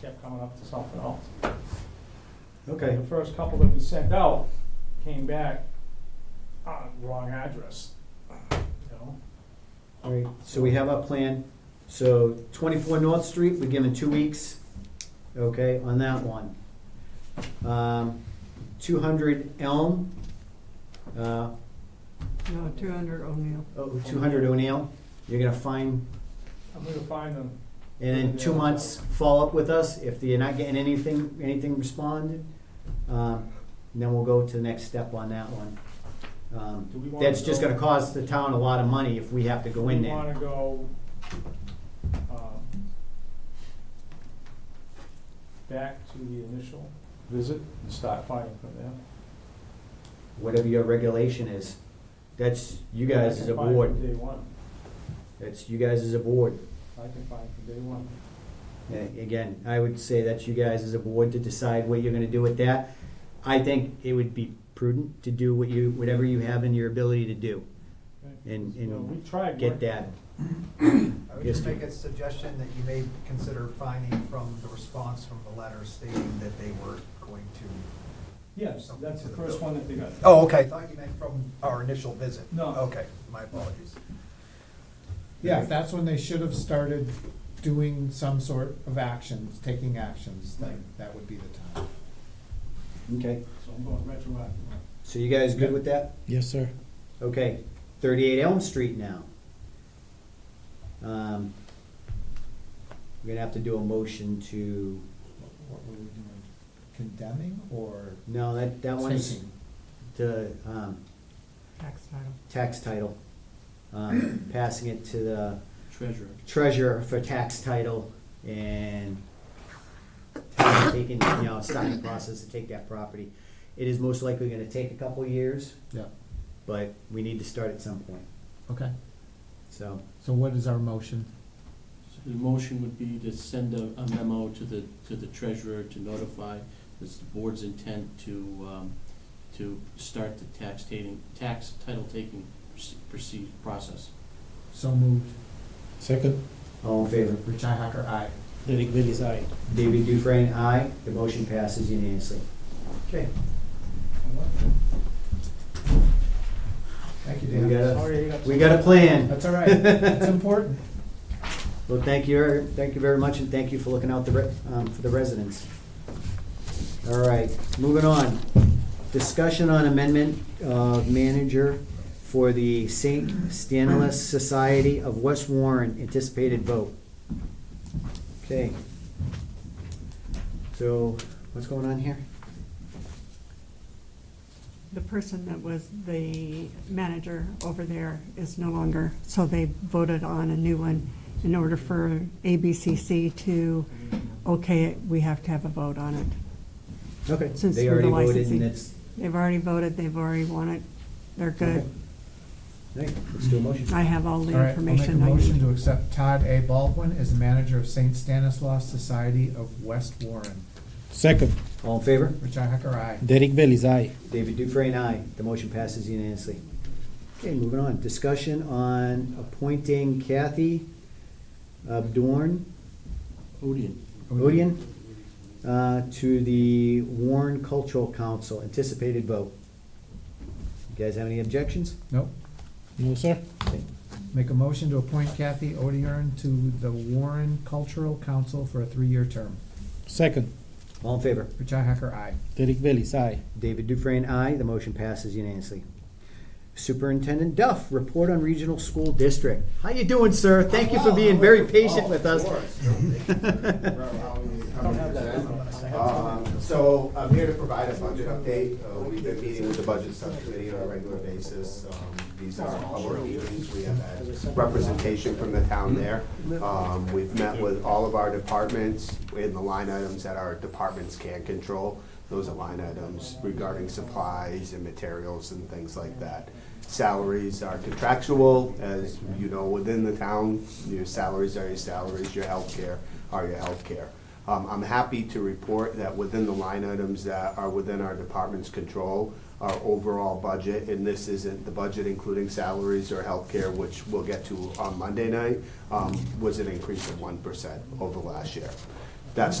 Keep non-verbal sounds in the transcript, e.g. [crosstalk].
kept coming up to something else. Okay, The first couple that we sent out came back, uh, wrong address, you know? all right, so we have our plan. So twenty-four North Street, we're given two weeks, okay, on that one. Um, two hundred Elm, uh, No, two hundred O'Neill. oh, two hundred O'Neill, you're gonna find, I'm gonna find them, and in two months, follow up with us. If you're not getting anything, anything responded, um, then we'll go to the next step on that one. Um, Do we wanna That's just go- gonna cost the town a lot of money if we have to go we in there. wanna go, um, back to the initial visit and start fighting from there. whatever your regulation is. That's you guys as a I can find board. from day one, That's you guys as a board. I can find from day one. Uh, Again, I would say that's you guys as a board to decide what you're gonna do with that. I think it would be prudent to do what you, whatever you have in your ability to do okay? and, You know, we and tried get working- that. I Yes, would just Steve. make a suggestion that you may consider finding from the response from the letter stating that they were going to. Yes, that's the first one that they got. Oh, okay. I thought you meant from our initial visit. No. Okay, my apologies. Yeah, that's when they should have started doing some sort of actions, taking actions, then that would be the time. Okay. So I'm going retroactive. So you guys good with that? Yes, sir. Okay, thirty-eight Elm Street now. Um, We're gonna have to do a motion to, What were we doing, condemning or no, that, that one's taking? to, um, Tax title. tax title, um, passing it to the Treasurer. treasurer for tax title and taking, you know, starting the process to take that property. It is most likely gonna take a couple years, Yeah, but we need to start at some point, okay, so. so what is our motion? So the motion would be to send a, a memo to the, to the treasurer to notify this the board's intent to, um, to start the tax taking, tax title taking proce- proceed, process. So moved, Second. All in favor? Richi Hacker, aye. Derek Bailey's aye. David Dufresne, aye. The motion passes unanimously. Okay. Thank you, We Dan. got a, Sorry, you got. we got a plan. That's all right, [laughs] it's important. Well, thank you, thank you very much, and thank you for looking out the, re- um, for the residents. All right, moving on. Discussion on amendment of manager for the St. Stanislaus Society of West Warren, anticipated vote. Okay. So, what's going on here? The person that was the manager over there is no longer, so they voted on a new one. In order for ABCC to, okay, it, we have to have a vote on it. Okay, Since they we're already the voted, licensee. and it's, They've already voted, they've already won it, they're good. hey, let's do a motion. I have all the All right, I'll make a information I motion need. to accept Todd A. Baldwin as manager of St. Stanislaus Society of West Warren. Second, All in favor? Richi Hacker, aye. Derek Bailey's aye. David Dufresne, aye. The motion passes unanimously. Okay, moving on. Discussion on appointing Kathy uh, Abdorn, Odian. Odian, uh, to the Warren Cultural Council. Anticipated vote. You guys have any objections? Nope. No, sir? Make a motion to appoint Kathy Odiern to the Warren Cultural Council for a three-year term. Second, All in favor? Richi Hacker, aye. Derek Bailey's aye. David Dufresne, aye. The motion passes unanimously. Superintendent Duff, report on regional school district. How you doing, sir? Thank you for being very patient with us. Um, So I'm here to provide a budget update. Uh, We've been meeting with the budget subcommittee on a regular basis. Um, These are our meetings. We have had representation from the town there. Um, We've met with all of our departments in the line items that our departments can control. Those are line items regarding supplies and materials and things like that. Salaries are contractual, as you know, within the town, your salaries are your salaries, your healthcare are your healthcare. Um, I'm happy to report that within the line items that are within our department's control, our overall budget, and this isn't the budget including salaries or healthcare, which we'll get to on Monday night, um, was an increase of one percent over last year. That's not.